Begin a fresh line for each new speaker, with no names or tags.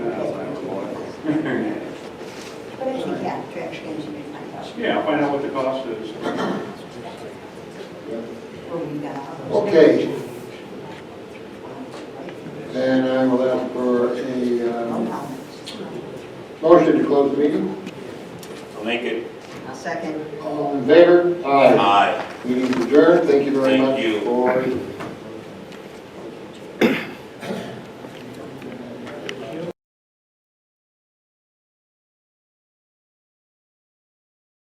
But I think, yeah, traffic engineer find out
Yeah, find out what the cost is.
what we uh, got.
Okay. Then I will ask for a
No
um,
comments.
motion to close the meeting.
I'll make it.
I'll second.
All in favor? Aye.
Aye.
Meeting adjourned. Thank you very
Thank
much
you.
for